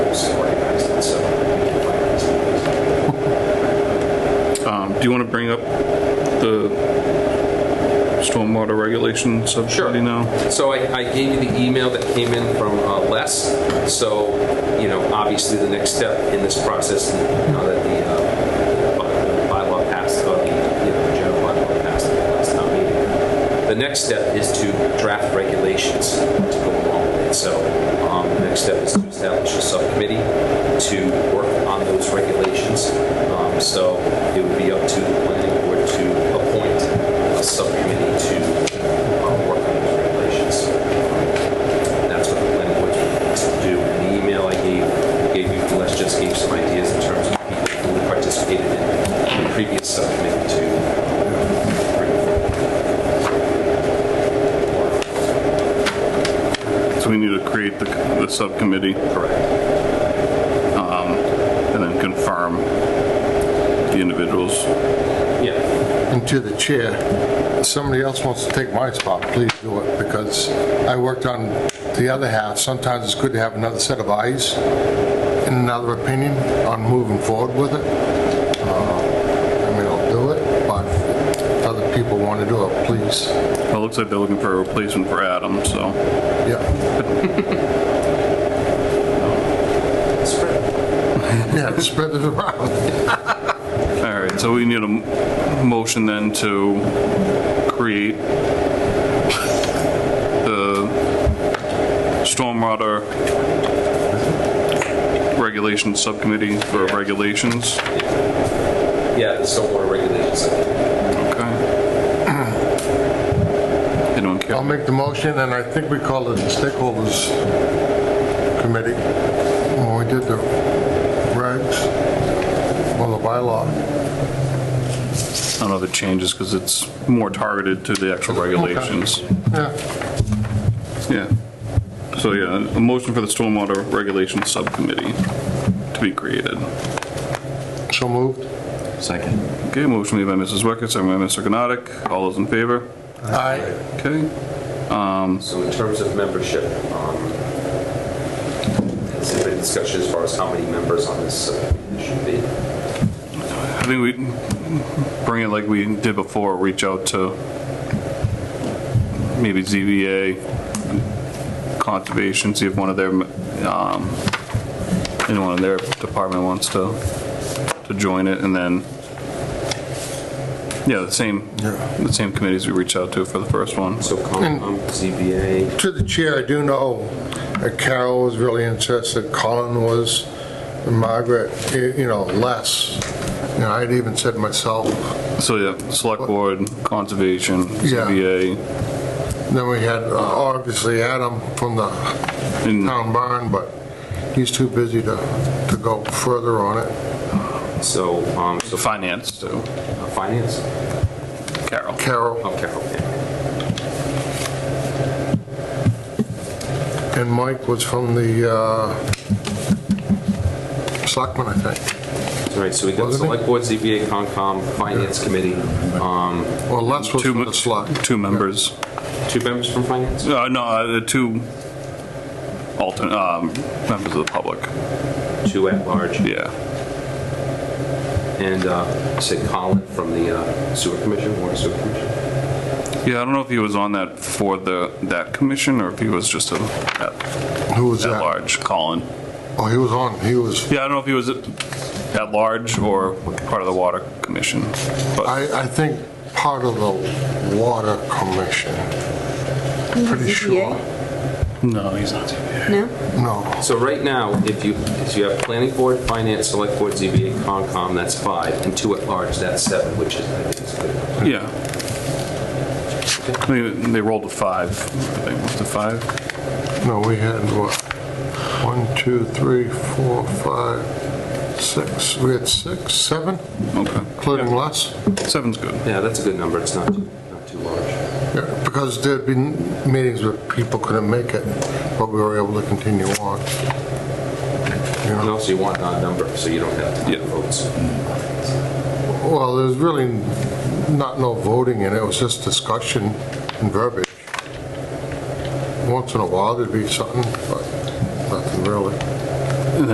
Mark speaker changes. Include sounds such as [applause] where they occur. Speaker 1: Um, bring up the stormwater regulation subcommittee now?
Speaker 2: So I, I gave you the email that came in from uh, Les. So, you know, obviously the next step in this process, now that the uh, by- bylaw passed, uh, the, you know, general bylaw passed at the last town meeting, the next step is to draft regulations to go along with it. So um, the next step is to establish a subcommittee to work on those regulations. Um, So it would be up to the planning board to appoint a subcommittee to uh, work on those regulations. That's what the planning board needs to do. And the email I gave, gave you, Les just gave some ideas in terms of people who participated in the previous subcommittee to.
Speaker 1: So we need to create the, the subcommittee Um,
Speaker 2: Correct.
Speaker 1: and then confirm the individuals.
Speaker 2: Yeah.
Speaker 3: And to the chair, if somebody else wants to take my spot, please do it, because I worked on the other half. Sometimes it's good to have another set of eyes and another opinion on moving forward with it. Uh, I mean, I'll do it, but if other people want to do it, please.
Speaker 1: Well, it looks like they're looking for a replacement for Adam, so.
Speaker 3: Yeah, [laughs]
Speaker 2: That's correct.
Speaker 3: yeah, spread it around.
Speaker 1: All right, so we need a m- motion then to create the stormwater regulation subcommittee for regulations.
Speaker 2: Yeah, the stormwater regulations.
Speaker 1: Okay. Anyone
Speaker 3: I'll
Speaker 1: care?
Speaker 3: make the motion, and I think we called it the Stakeholders Committee when we did the regs, well, the bylaw.
Speaker 1: I don't know if it changes because it's more targeted to the actual regulations.
Speaker 3: Yeah,
Speaker 1: Yeah. So yeah, a motion for the stormwater regulation subcommittee to be created.
Speaker 3: so moved.
Speaker 4: Second.
Speaker 1: Okay, motion made by Mrs. Wecker, second by Mr. Gnotik. All those in favor?
Speaker 3: Aye.
Speaker 1: Okay.
Speaker 2: So in terms of membership, um, has there been discussion as far as how many members on this subcommittee should be?
Speaker 1: I think we bring it like we did before, reach out to maybe ZBA, Conservation, see if one of their, um, anyone in their department wants to, to join it, and then, yeah, the same, the same committees we reached out to for the first one.
Speaker 2: So um, Concom, ZBA,
Speaker 3: To the chair, I do know that Carol was really interested, Colin was, and Margaret, y- you know, Les. You know, I'd even said myself,
Speaker 1: So, yeah, Select Board, Conservation,
Speaker 3: Yeah.
Speaker 1: ZBA,
Speaker 3: then we had, uh, obviously, Adam from the
Speaker 1: and
Speaker 3: town barn, but he's too busy to, to go further on it.
Speaker 2: so, um, so
Speaker 1: Finance, too.
Speaker 2: Uh, Finance?
Speaker 1: Carol.
Speaker 3: Carol
Speaker 2: Okay, okay.
Speaker 3: and Mike was from the uh, Selectmen, I think,
Speaker 2: All right, so we got
Speaker 3: Wasn't it?
Speaker 2: Select Board, ZBA, Concom, Finance Committee. Um,
Speaker 3: or Les was
Speaker 1: Two
Speaker 3: from
Speaker 1: mo-
Speaker 3: the Select.
Speaker 1: Two members.
Speaker 2: Two members from Finance?
Speaker 1: Uh, no, uh, the two alternate um, members of the public.
Speaker 2: Two at large.
Speaker 1: Yeah,
Speaker 2: And uh, say Colin from the uh, Sewer Commission, Water Sewer Commission.
Speaker 1: yeah. I don't know if he was on that for the that commission or if he was just a at,
Speaker 3: Who was
Speaker 1: at
Speaker 3: that?
Speaker 1: large. Colin.
Speaker 3: Oh, he was on, he was.
Speaker 1: Yeah, I don't know if he was at, at large or part of the water commission. But
Speaker 3: I, I think part of the water commission, pretty sure.
Speaker 1: no, he's not.
Speaker 5: No?
Speaker 3: No,
Speaker 2: So right now, if you, if you have Planning Board, Finance, Select Board, ZBA, Concom, that's five, and two at large, that's seven, which is, I think is good.
Speaker 1: Yeah. I mean, they rolled to five. I think was to five.
Speaker 3: no, we had what? One, two, three, four, five, six. We had six, seven,
Speaker 1: Okay.
Speaker 3: including Les.
Speaker 1: Seven's good.
Speaker 2: Yeah, that's a good number, it's not, too not too large.
Speaker 3: Yeah, Because there'd been meetings where people couldn't make it, but we were able to continue on. You
Speaker 2: And
Speaker 3: know,
Speaker 2: also you want an odd number, so you don't have to
Speaker 1: Yeah.
Speaker 2: votes.
Speaker 3: well, there's really not no voting in it, it was just discussion and verbiage. Once in a while there'd be something, but nothing really.